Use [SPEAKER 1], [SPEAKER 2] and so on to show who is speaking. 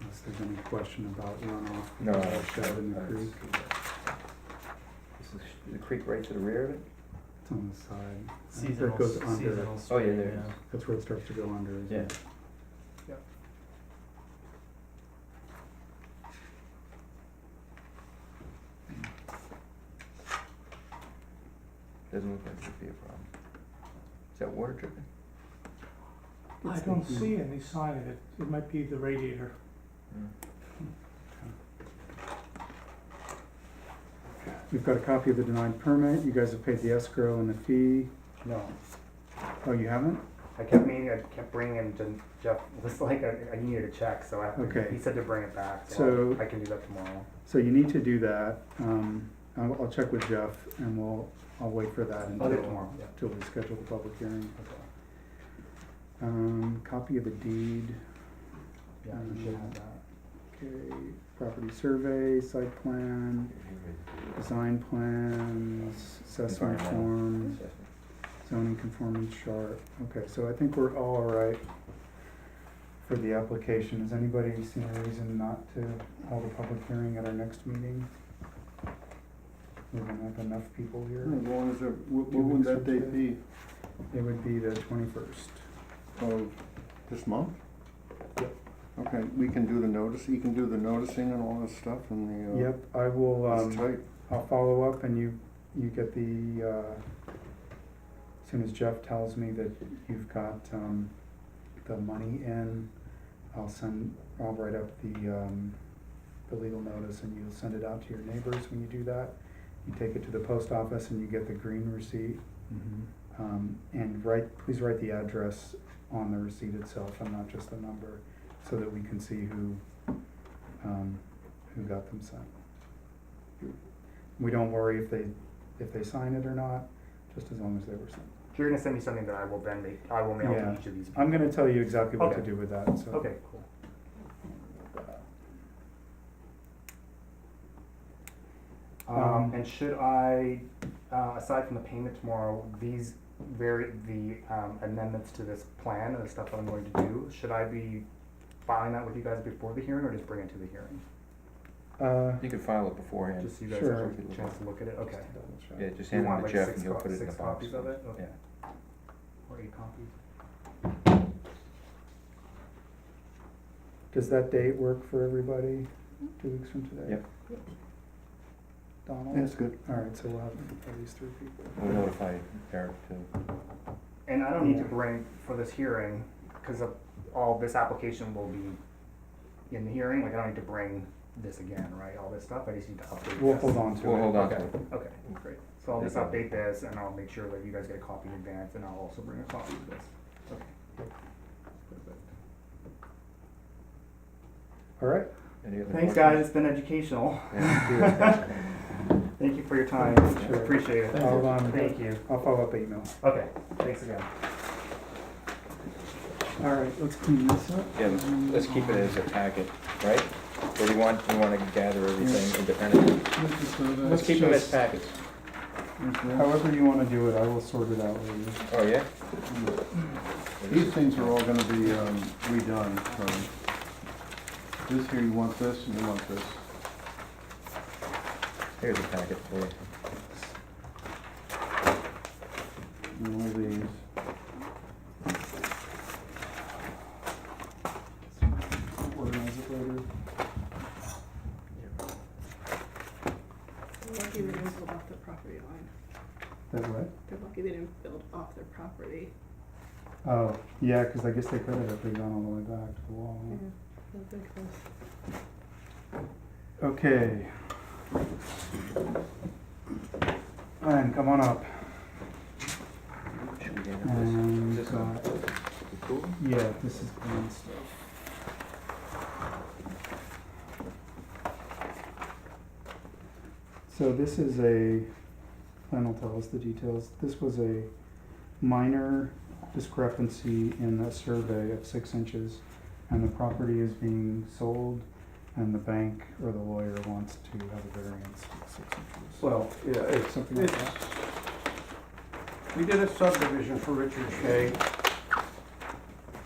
[SPEAKER 1] if there's any question about runoff. from
[SPEAKER 2] No, I
[SPEAKER 1] the
[SPEAKER 2] don't.
[SPEAKER 1] Shed in the
[SPEAKER 2] I don't
[SPEAKER 1] creek,
[SPEAKER 2] see that. This is the creek right to the rear of it?
[SPEAKER 1] it's on the side. I think
[SPEAKER 3] Seasonal,
[SPEAKER 1] That goes under,
[SPEAKER 3] seasonal
[SPEAKER 2] Oh, yeah,
[SPEAKER 3] spring,
[SPEAKER 2] there it is.
[SPEAKER 3] yeah.
[SPEAKER 1] that's where it starts to go under, isn't it?
[SPEAKER 2] Doesn't look like there'd be a problem. Is that water dripping?
[SPEAKER 4] I
[SPEAKER 1] It's
[SPEAKER 4] don't
[SPEAKER 1] the-
[SPEAKER 4] see any sign of it. It might be the radiator.
[SPEAKER 1] We've got a copy of the denied permit, you guys have paid the escrow and the fee,
[SPEAKER 5] No,
[SPEAKER 1] oh, you haven't?
[SPEAKER 5] I kept meaning, I kept bringing him to Jeff, was like, I, I needed a check, so I have to,
[SPEAKER 1] Okay.
[SPEAKER 5] he said to bring it back, so
[SPEAKER 1] So-
[SPEAKER 5] I can do that tomorrow.
[SPEAKER 1] So you need to do that, um, I'll, I'll check with Jeff and we'll, I'll wait for that
[SPEAKER 5] I'll do it
[SPEAKER 1] until,
[SPEAKER 5] tomorrow, yeah.
[SPEAKER 1] until we schedule the public hearing.
[SPEAKER 5] Okay.
[SPEAKER 1] Um, copy of the deed,
[SPEAKER 5] Yeah, you
[SPEAKER 3] Mm-hmm.
[SPEAKER 5] should have that.
[SPEAKER 1] okay, property survey, site plan, design plans, assessment
[SPEAKER 2] Environmental.
[SPEAKER 1] form, zoning conformance chart. Okay, so I think we're all right for the application. Has anybody seen a reason not to hold a public hearing at our next meeting? We don't have enough people
[SPEAKER 6] As
[SPEAKER 1] here.
[SPEAKER 6] long as they're, what
[SPEAKER 1] Two
[SPEAKER 6] what would
[SPEAKER 1] weeks
[SPEAKER 6] that
[SPEAKER 1] from
[SPEAKER 6] date be?
[SPEAKER 1] It would be the twenty-first.
[SPEAKER 6] Of this month? Okay, we can do the notice, you can do the noticing and all this stuff and the, uh,
[SPEAKER 1] Yep, I will, um,
[SPEAKER 6] it's tight.
[SPEAKER 1] I'll follow up and you, you get the, uh, as soon as Jeff tells me that you've got, um, the money in, I'll send, I'll write up the, um, the legal notice and you'll send it out to your neighbors when you do that. You take it to the post office and you get the green receipt. Um, and write, please write the address on the receipt itself and not just the number, so that we can see who, um, who got them sent. We don't worry if they, if they sign it or not, just as long as they were sent.
[SPEAKER 5] You're gonna send me something that I will then make, I will mail
[SPEAKER 1] Yeah.
[SPEAKER 5] to each of these.
[SPEAKER 1] I'm gonna tell you exactly what to
[SPEAKER 5] Okay.
[SPEAKER 1] do with that, so.
[SPEAKER 5] Okay, cool. Um,
[SPEAKER 1] Um,
[SPEAKER 5] and should I, uh, aside from the payment tomorrow, these very, the, um, amendments to this plan and the stuff that I'm going to do, should I be filing that with you guys before the hearing or just bring it to the hearing?
[SPEAKER 1] Uh,
[SPEAKER 2] You could file it beforehand.
[SPEAKER 5] Just so you guys
[SPEAKER 1] Sure.
[SPEAKER 5] have a chance to look at it, okay.
[SPEAKER 2] Yeah, just
[SPEAKER 5] You
[SPEAKER 2] hand
[SPEAKER 5] want
[SPEAKER 2] it to
[SPEAKER 5] like
[SPEAKER 2] Jeff
[SPEAKER 5] six
[SPEAKER 2] and he'll
[SPEAKER 5] co-
[SPEAKER 2] put it in
[SPEAKER 5] six
[SPEAKER 2] the box.
[SPEAKER 5] copies of it? Okay.
[SPEAKER 2] Yeah.
[SPEAKER 5] Or eight copies?
[SPEAKER 1] Does that date work for everybody, two weeks from today?
[SPEAKER 2] Yep.
[SPEAKER 1] Donald?
[SPEAKER 6] That's good.
[SPEAKER 1] All right, so we'll have at least three people.
[SPEAKER 2] We'll notify Eric too.
[SPEAKER 5] And I don't need to
[SPEAKER 1] Yeah.
[SPEAKER 5] bring for this hearing, because of all this application will be in the hearing, like I don't need to bring this again, right, all this stuff, I just need to update this.
[SPEAKER 1] We'll hold on to it.
[SPEAKER 2] We'll hold on to
[SPEAKER 5] Okay,
[SPEAKER 2] it.
[SPEAKER 5] okay, great, so I'll just update this and I'll make sure that you guys get a copy in advance and I'll also bring a copy of this, okay. Perfect.
[SPEAKER 1] All right,
[SPEAKER 2] Any other
[SPEAKER 5] Thanks, guys,
[SPEAKER 2] questions?
[SPEAKER 5] it's been educational,
[SPEAKER 2] Yeah.
[SPEAKER 5] thank you for your time,
[SPEAKER 1] Sure.
[SPEAKER 5] appreciate it.
[SPEAKER 1] I'll, um,
[SPEAKER 5] Thank you,
[SPEAKER 1] I'll follow up email.
[SPEAKER 5] okay, thanks again.
[SPEAKER 1] All right, let's clean this up.
[SPEAKER 2] Yeah, let's- let's keep it as a packet, right? Or do you want, we want to gather everything independently? Let's keep them as packets.
[SPEAKER 1] However you wanna do it, I will sort it out later.
[SPEAKER 2] Oh, yeah?
[SPEAKER 6] These things are all gonna be, um, redone, so this here, you want this and you want this.
[SPEAKER 2] Here's a packet for you.
[SPEAKER 6] And all these.
[SPEAKER 1] Organize it later.
[SPEAKER 7] They're lucky they didn't build off their property line.
[SPEAKER 1] That what?
[SPEAKER 7] They're lucky they didn't build off their property.
[SPEAKER 1] Oh, yeah, cause I guess they could have if they gone all the way back to the wall. huh?
[SPEAKER 7] They've been close.
[SPEAKER 1] Okay. Ryan, come on up.
[SPEAKER 2] Should we get into this?
[SPEAKER 1] And,
[SPEAKER 2] This
[SPEAKER 1] uh,
[SPEAKER 2] one? Cool.
[SPEAKER 1] yeah, this is green stuff. So this is a, Glenn will tell us the details, this was a minor discrepancy in the survey of six inches. And the property is being sold and the bank or the lawyer wants to have a variance of six inches.
[SPEAKER 8] Well, yeah, it's,
[SPEAKER 1] Something like
[SPEAKER 8] it's, we did a subdivision for Richard Shea